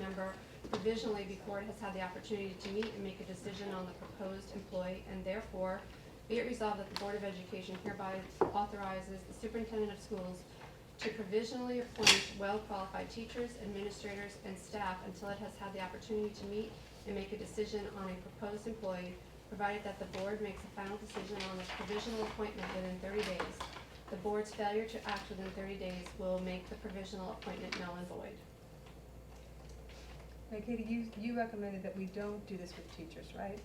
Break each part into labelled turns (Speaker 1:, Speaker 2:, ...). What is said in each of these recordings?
Speaker 1: November. Provisionally, the board has had the opportunity to meet and make a decision on the proposed employee, and therefore, be it resolved that the Board of Education hereby authorizes the superintendent of schools to provisionally appoint well-qualified teachers, administrators, and staff until it has had the opportunity to meet and make a decision on a proposed employee, provided that the board makes a final decision on this provisional appointment within thirty days. The board's failure to act within thirty days will make the provisional appointment null and void.
Speaker 2: Now Katie, you, you recommended that we don't do this with teachers, right?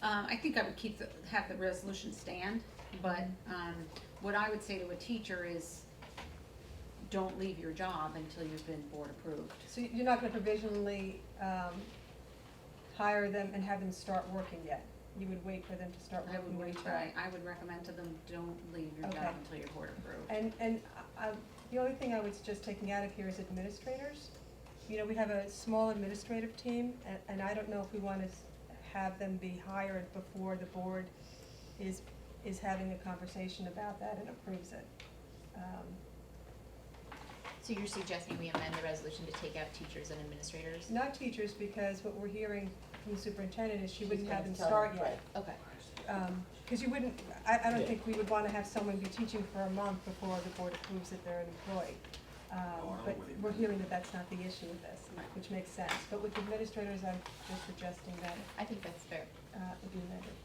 Speaker 3: Um, I think I would keep the, have the resolution stand, but, um, what I would say to a teacher is, don't leave your job until you've been board approved.
Speaker 2: So you're not gonna provisionally, um, hire them and have them start working yet? You would wait for them to start
Speaker 3: I
Speaker 2: working
Speaker 3: would
Speaker 2: when you
Speaker 3: retry, I would recommend to them, don't leave your
Speaker 2: Okay.
Speaker 3: job until you're board approved.
Speaker 2: And, and I, I- the only thing I was just taking out of here is administrators. You know, we have a small administrative team, and, and I don't know if we wanna s- have them be hired before the board is, is having a conversation about that and approves it. Um,
Speaker 4: So you're suggesting we amend the resolution to take out teachers and administrators?
Speaker 2: Not teachers, because what we're hearing from the superintendent is she
Speaker 5: She's
Speaker 2: wouldn't have
Speaker 5: gonna
Speaker 2: them
Speaker 5: tell
Speaker 2: start
Speaker 5: them,
Speaker 2: yet.
Speaker 4: Okay,
Speaker 2: Um, cause you wouldn't, I, I don't
Speaker 5: Yeah.
Speaker 2: think we would wanna have someone be teaching for a month before the board approves that they're an employee.
Speaker 6: No, Oh, I
Speaker 2: Um,
Speaker 6: don't
Speaker 2: but
Speaker 6: believe
Speaker 2: we're
Speaker 6: that.
Speaker 2: hearing that that's not the issue with this,
Speaker 3: Right.
Speaker 2: which makes sense, but with administrators, I'm just suggesting that,
Speaker 4: I think that's fair.
Speaker 2: uh, it be amended.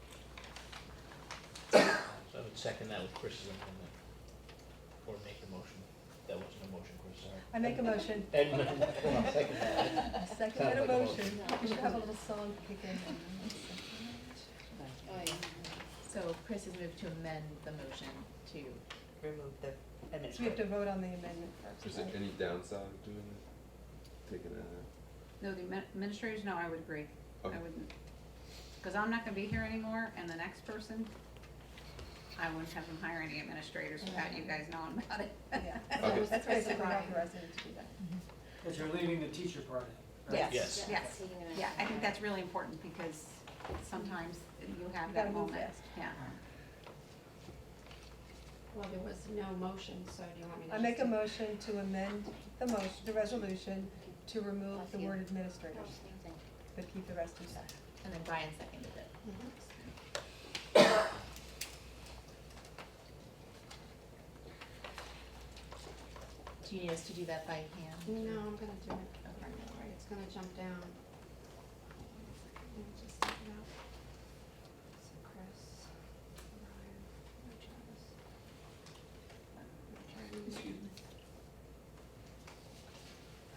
Speaker 5: So I would second that with Chris's amendment, or make a motion. That wasn't a motion, Chris, sorry.
Speaker 2: I make a motion,
Speaker 5: Edmund, I'll second that.
Speaker 2: I second that
Speaker 5: Sounds like a
Speaker 2: motion,
Speaker 3: motion.
Speaker 2: we should have a little song kick in.
Speaker 4: Oh, So Chris has moved to amend the motion to,
Speaker 7: remove the
Speaker 2: So we have to
Speaker 7: administrative.
Speaker 2: vote on the amendment
Speaker 8: Is
Speaker 2: first,
Speaker 8: there
Speaker 2: right?
Speaker 8: any downside of doing that? Taking that out?
Speaker 3: No, the admin- administrators, no, I would agree, I
Speaker 8: Okay.
Speaker 3: wouldn't, cause I'm not gonna be here anymore, and the next person, I wouldn't have them hire any administrators without you guys knowing about it.
Speaker 2: Yeah.
Speaker 8: Okay.
Speaker 2: That's basically
Speaker 3: Right.
Speaker 2: authorizing it to do that.
Speaker 9: Because you're leaving the teacher part in, right?
Speaker 8: Yes.
Speaker 3: Yes, yeah, I think that's really important because sometimes you have
Speaker 2: You gotta
Speaker 3: that
Speaker 2: move
Speaker 3: moment,
Speaker 2: fast.
Speaker 3: yeah.
Speaker 1: Well, there was no motion, so do you want me to?
Speaker 2: I
Speaker 1: just
Speaker 2: make a
Speaker 1: do-
Speaker 2: motion to amend the motion, the resolution to remove the word administrators, but keep the rest intact.
Speaker 4: and then Brian seconded it.
Speaker 1: Mhm.
Speaker 4: Do you need us to do that by hand?
Speaker 1: No, I'm gonna do it. Okay, all right, It's gonna jump down. Let me just take it out. So Chris, Brian, and Travis. Okay.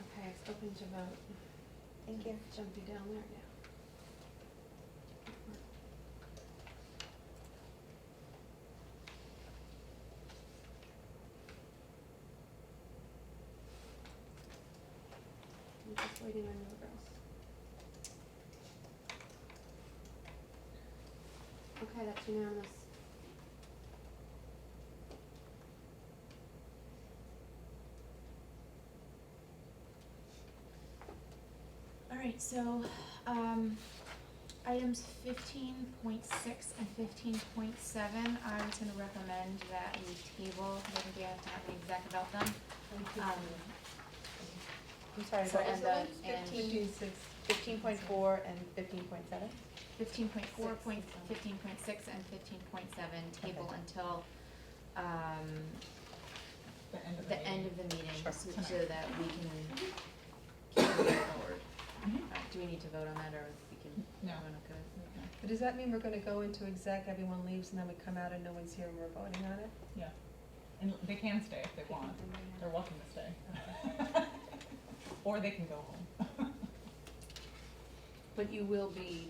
Speaker 1: Okay, it's open to vote. Thank you. Jumpy down there now. I'm just waiting on you girls. Okay, that's unanimous.
Speaker 4: All right, so, um, items fifteen point six and fifteen point seven, I was gonna recommend that we table, I don't think we have to have an exec about them. Um,
Speaker 7: I'm sorry,
Speaker 4: So
Speaker 7: what was
Speaker 4: and
Speaker 7: the
Speaker 4: the,
Speaker 7: ones?
Speaker 4: and
Speaker 2: Fifteen six,
Speaker 7: Fifteen point four and fifteen point seven?
Speaker 4: fifteen point four,
Speaker 2: Six
Speaker 4: point,
Speaker 2: and seven.
Speaker 4: fifteen point six and fifteen point seven, table
Speaker 7: Okay.
Speaker 4: until, um, the end of the meeting,
Speaker 7: Sure. Mm-hmm.
Speaker 4: so so that we can carry it forward. Uh, Do we need to vote on that, or we can,
Speaker 7: No.
Speaker 4: everyone okay?
Speaker 2: but does that mean we're gonna go into exec, everyone leaves, and then we come out and no one's here and we're voting on it?
Speaker 10: Yeah, and they can stay if they want, they're welcome to stay. Or they can go home.
Speaker 3: But you will be,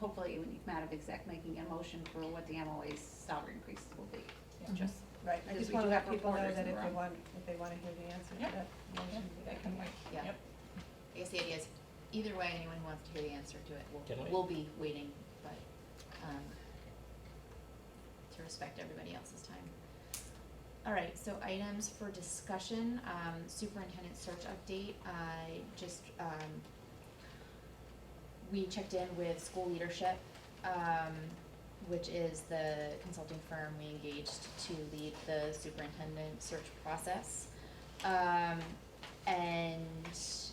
Speaker 3: hopefully, when you come out of exec, making a motion for what the MOA's salary increases will be.
Speaker 10: Yeah.
Speaker 3: Just,
Speaker 2: Right, I just
Speaker 3: Because we
Speaker 2: wanna
Speaker 3: do
Speaker 2: let
Speaker 3: have
Speaker 2: people know
Speaker 3: reporters
Speaker 2: that
Speaker 3: in
Speaker 2: if
Speaker 3: the
Speaker 2: they
Speaker 3: room.
Speaker 2: want, if they wanna hear the answer
Speaker 10: Yep.
Speaker 2: to that
Speaker 10: yeah,
Speaker 2: motion.
Speaker 10: they can wait,
Speaker 4: Yeah.
Speaker 10: yep.
Speaker 4: I guess the idea is, either way, anyone who wants to hear the answer to it,
Speaker 8: Can we-
Speaker 4: we'll, we'll be waiting, but, um, to respect everybody else's time. All right, so items for discussion, um, superintendent search update, I just, um, we checked in with school leadership, um, which is the consulting firm we engaged to lead the superintendent search process. Um, and